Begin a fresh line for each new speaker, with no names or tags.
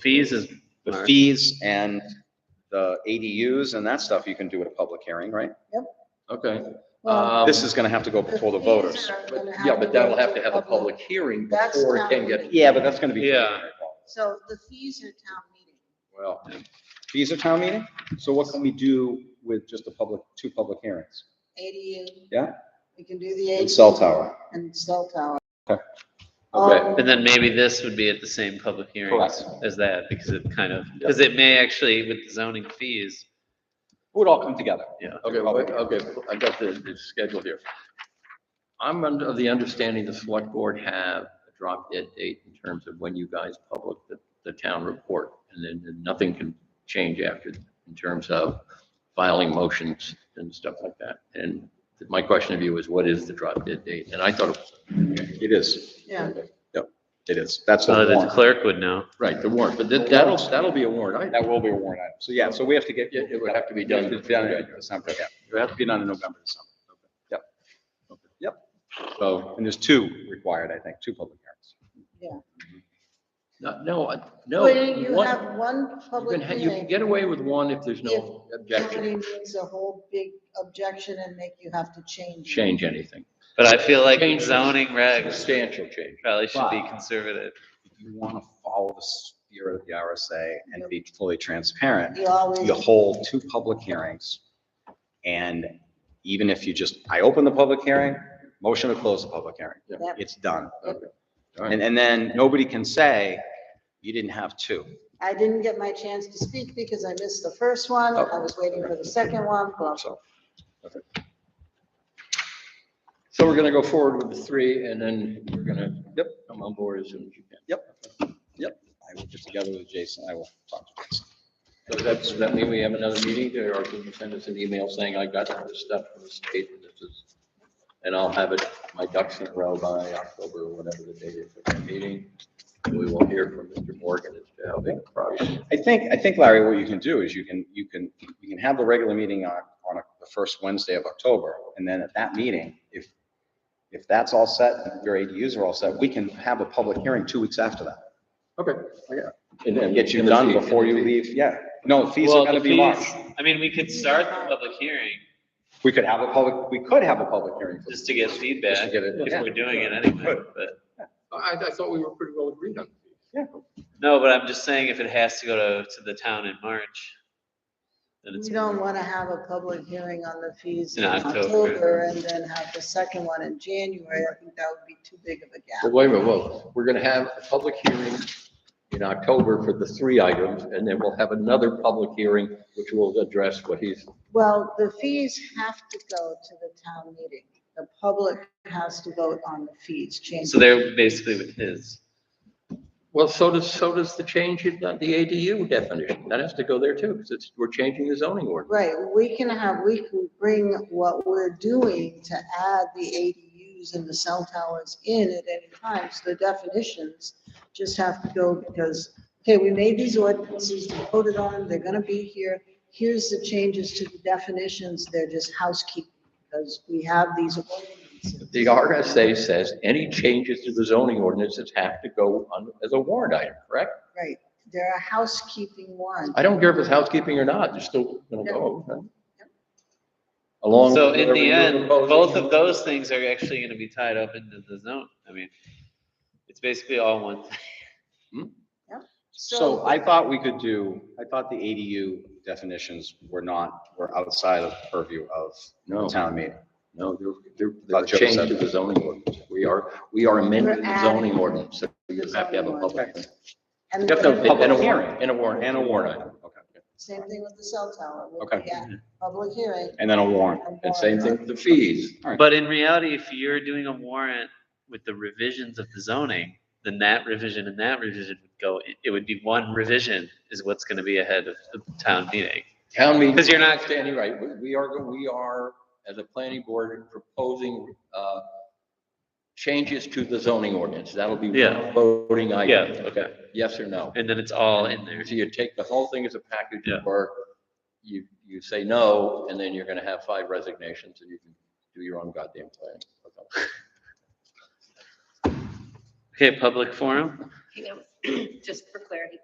fees is,
The
Alright.
fees and the ADUs and that stuff, you can do at a public hearing, right?
okay.
Well,
Um,
This is gonna have to go before uh, the
fees are
voters.
gonna
But, yeah,
to go
but that'll
to
have to have a public hearing
That's
before it
not
can get.
really-
Yeah, but that's gonna be.
Yeah.
So the fees are town meeting.
Well, fees are town meeting, so what can we do with just a public, two public hearings?
ADU.
Yeah.
We can do the ADU.
And cell tower,
And cell tower.
Okay.
Um,
And then maybe this would be at the same public hearing
Correct.
as that, because it kind of, because it may actually, with the zoning fees,
it would all come together.
Okay, wait, okay, I got the, the schedule here. I'm under the understanding the select board have a drop dead date in terms of when you guys publish the, the town report. And then then nothing can change after, in terms of filing motions and stuff like that. And my question of you is, what is the drop dead date? And I thought, it-
It is,
Yeah,
it is, Uh, that's
so that
a
uh, the
warrant,
clerk would know.
right, the warrant, but that- that'll, that'll be a warrant. item.
that will be a warrant item, so yeah, so we have to get.
It- it would have to be done.
It would in December, yeah, it would have to be done in November, December. Yep. Yep, so, and there's two required, I think, two public hearings.
No, no, I- no.
well, you
one-
have one
You can,
public
ha- you can
hearing.
get away with one if there's no
Somebody
objection,
makes a whole big objection and make you have to change. it.
change anything,
But I feel like
Change.
zoning regs
substantial change.
probably should be
Wow.
conservative.
If you want to follow the spirit of the RSA and be fully transparent,
You always.
you hold two public hearings. And even if you just, I open the public hearing, motion to close the public hearing,
Yeah.
Yep.
it's done.
Okay. All right.
And, and then nobody can say, you didn't have two.
I didn't get my chance to speak because I missed the first one.
Oh.
I was waiting for the second one, blah, blah.
So
So we're gonna go forward with the three and then we're gonna, yep, come on board as soon as you can.
I will get together with Jason, I will talk to Jason.
So does that, does that mean we have another meeting there or can you send us an email saying I got all this stuff from the state and this is, and I'll have it, my ducks in a row by October or whatever the date is for that meeting. And we will hear from Mr. Morgan as to how big the project is.
I think, I think Larry, what you can do is you can, you can, you can have the regular meeting on, on the first Wednesday of October. And then at that meeting, if, if that's all set, and your ADUs are all set, we can have a public hearing two weeks after that.
Okay, yeah.
And get you done before you leave, yeah. No, fees
Well,
are
the
gonna be March.
fees- I mean, we could start the public hearing
We could have a public, we could have a public hearing.
just to get
Just to
feedback
get it-
if we're doing it anyway, but,
I, I thought we were pretty well agreed on.
no, but I'm just saying if it has to go to, to the town in March, then it's.
We don't want to have a public hearing on the fees
In
in
October.
October and then have the second one in January. I think that would be too big of a
Well,
gap.
wait a minute, whoa, we're gonna have a public hearing in October for the three items, and then we'll have another public hearing, which will address what he's,
Well, the fees have to go to the town meeting. The public has to vote on the fees change.
So they're basically with his.
well, so does, so does the change in the ADU definition, that has to go there too, because it's, we're changing the zoning ordinance.
Right, we can have, we can bring what we're doing to add the ADUs and the cell towers in at any time. So the definitions just have to go because, okay, we made these ordinances, we voted on them, they're gonna be here. Here's the changes to the definitions, they're just housekeeping because we have these ordinances.
The RSA says any changes to the zoning ordinances have to go on as a warrant item, correct?
Right, there are housekeeping ones.
I don't care if it's housekeeping or not, they're still gonna go. huh? Along.
So
with
in the
whatever you're
end,
proposing.
both of those things are actually gonna be tied up into the zone. I mean, it's basically all one. thing.
So I thought we could do, I thought the ADU definitions were not, were outside of purview of the
No.
town meeting.
No, there, there,
Thought Joe
there's a change
said
to the zoning ordinance. We are, we are amending
We're
the
adding
zoning ordinance, so you have to have a public.
Okay.
And
You have to have
Public
and a
hearing.
warrant, and a warrant.
And a warrant item, okay.
same thing with the cell tower. We'll
Okay.
be at Public hearing.
And then a warrant.
And same thing with the fees.
But in reality, if you're doing a warrant with the revisions of the zoning, then that revision and that revision would go, it would be one revision is what's gonna be ahead of the town meeting.
Town meeting.
'Cause you're not-
Standing right, we, we are, we are, as a planning board, proposing, uh, changes to the zoning ordinance. That'll be
Yeah.
one voting item.
Yeah, okay.
Yes or no?
And then it's all in there.
So you take the whole thing as a package,
Yeah.
or you, you say no, and then you're gonna have five resignations, and you can do your own goddamn plan.
Okay, public forum?
Hang on, Just for clarity,